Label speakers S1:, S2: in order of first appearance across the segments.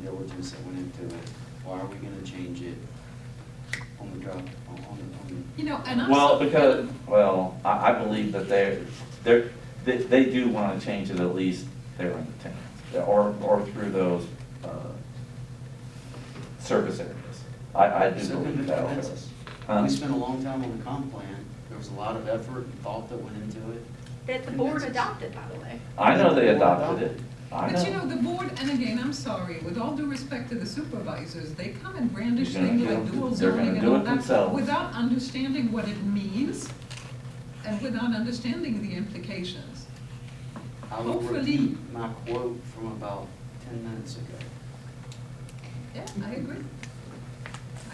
S1: analysis that went into it, why are we gonna change it on the drop, on, on, on?
S2: You know, and I'm.
S3: Well,
S2: so-
S3: because, well, I, I believe that they're, they're, they, they do wanna change it at least there in the town, or, or through those, uh, service areas. I, I do
S1: So
S3: believe
S1: good
S3: that. um,
S1: defense us.
S3: Huh?
S1: We spent a long time on the comp plan, there was a lot of effort and thought that went into it.
S4: That the board adopted, by the way.
S3: I know they adopted it, I know.
S2: But you know, the board, and again, I'm sorry, with all due respect to the supervisors, they come and brandish
S3: They're gonna
S2: things
S3: do
S2: like
S3: it-
S2: dual
S3: they're gonna
S2: zoning and
S3: do
S2: all
S3: it
S2: that,
S3: themselves.
S2: without understanding what it means and without understanding the implications.
S1: I will
S2: Hopefully-
S1: repeat my quote from about ten minutes ago.
S2: Yeah, I agree.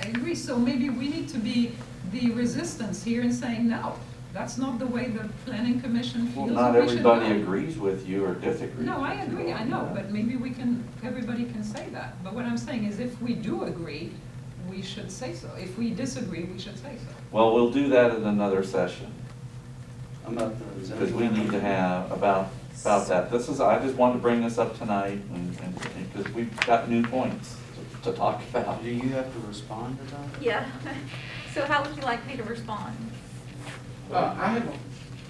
S2: I agree, so maybe we need to be the resistance here in saying, no, that's not the way the planning commission
S3: Well,
S2: feels.
S3: not
S2: and we should
S3: everybody
S2: go."
S3: agrees with you or disagrees.
S2: No, I
S3: with you
S2: agree, I
S3: on
S2: know,
S3: that.
S2: but maybe we can, everybody can say that. But what I'm saying is if we do agree, we should say so. If we disagree, we should say so.
S3: Well, we'll do that in another session,
S1: About the zoning.
S3: because we need to have about, about that. This is, I just wanted to bring this up tonight, and, and, because we've got new points to talk about.
S1: Do you have to respond to that?
S4: Yeah. So how would you like me to respond?
S5: Uh, I have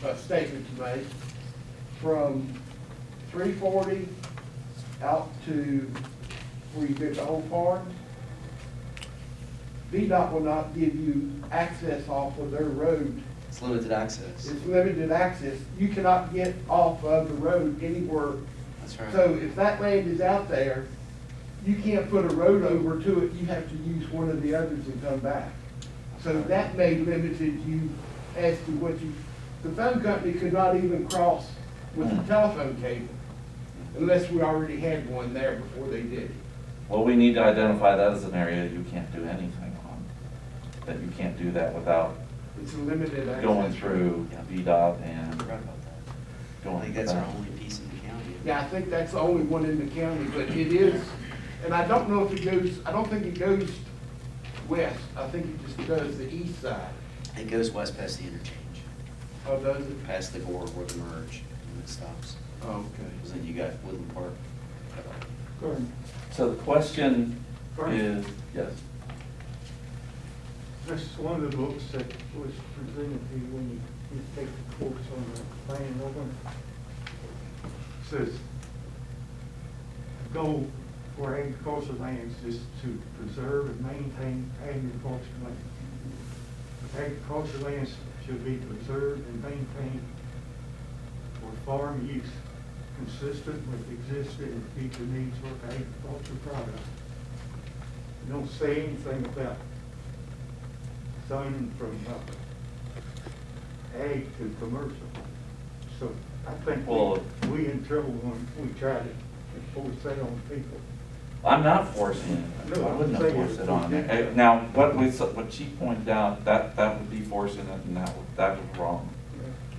S5: a- a statement to make. From three forty out to where you get the old farm, VDOT will not give you access off of their road.
S1: It's limited access,
S5: It's limited access. You cannot get off of the road anywhere.
S1: that's right.
S5: So if that land is out there, you can't put a road over to it. You have to use one of the others and come back. So that may limited you as to what you, the phone company could not even cross with the telephone cable unless we already had one there before they did.
S3: Well, we need to identify that as an area you can't do anything on, that you can't do that without
S5: It's a limited access.
S3: going through VDOT
S1: I
S3: and
S1: forgot about that. I
S3: going
S1: think
S3: through
S1: that's our
S3: that.
S1: only piece in the county.
S5: Yeah, I think that's the only one in the county, but it is, and I don't know if it goes, I don't think it goes west. I think it just goes the east side.
S1: It goes west past the interchange,
S5: Oh, does it?
S1: past the board where the merge, and it stops. Because
S5: Okay.
S1: then you got Woodland Park. cut off.
S3: So the question
S6: Right.
S3: is, yes,
S6: This is one of the books that was presented to you when you, you take the course on the plan over. Says, goal for agricultural lands is to preserve and maintain agricultural lands. Agricultural lands should be preserved and maintained for farm use, consistent with existing and future needs for agricultural products. You don't say anything about zoning from uh, ag to commercial. So I think
S3: Well-
S6: we- we in trouble when we try to enforce that on people.
S3: I'm not forcing it,
S6: No,
S3: I
S6: I'm
S3: wouldn't have
S6: saying
S3: forced it
S6: it's
S3: on
S6: not-
S3: there. Eh, Now, what we, s- what she pointed out, that, that would be forcing it, and that, would- that was wrong,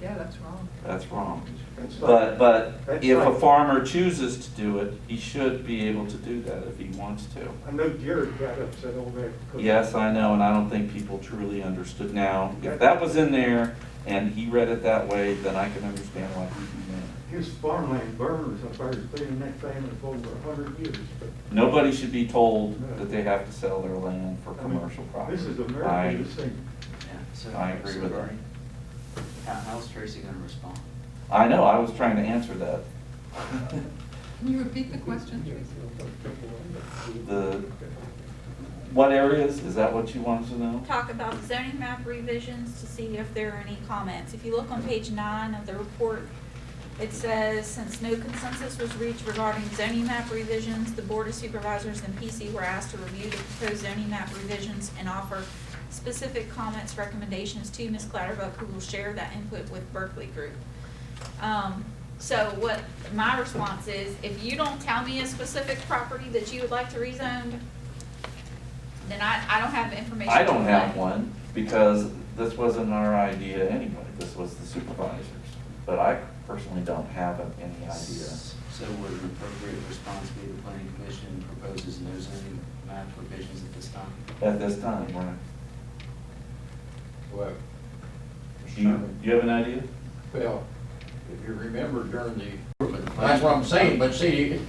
S2: Yeah, that's wrong.
S3: that's wrong.
S6: That's
S3: But,
S6: like-
S3: but
S6: that's
S3: if a
S6: like-
S3: farmer chooses to do it, he should be able to do that if he wants to.
S6: I know Jared got upset over that. because-
S3: Yes, I know, and I don't think people truly understood. Now, if that was in there and he read it that way, then I can understand why he did that.
S6: His farmland burners up there, has been in that family for over a hundred years, but.
S3: Nobody should be told that they have to sell their land for
S6: I mean,
S3: commercial property.
S6: This is
S3: I-
S6: America, this thing.
S1: Yeah, so-
S3: I agree
S1: so
S3: with
S1: Bernie,
S3: her.
S1: How, how's Tracy gonna respond?
S3: I know, I was trying to answer that.
S2: Can you repeat the question, Tracy?
S3: The, what areas, is that what you wanted to know?
S4: Talk about zoning map revisions to see if there are any comments. If you look on page nine of the report, it says, since no consensus was reached regarding zoning map revisions, the Board of Supervisors and PC were asked to review the proposed zoning map revisions and offer specific comments, recommendations to Ms. Clatterbuck, who will share that input with Berkeley Group. Um, so what my response is, if you don't tell me a specific property that you would like to rezoned, then I, I don't have the information.
S3: I
S4: to
S3: don't have
S4: relay.
S3: one, because this wasn't our idea anyway, this was the supervisor's. But I personally don't have any idea.
S1: So would an appropriate response be the planning commission proposes no zoning map provisions at this time?
S3: At this time, right?
S7: Well,
S3: Do you, do you have an idea?
S7: well, if you remember during the, that's what I'm saying, but see,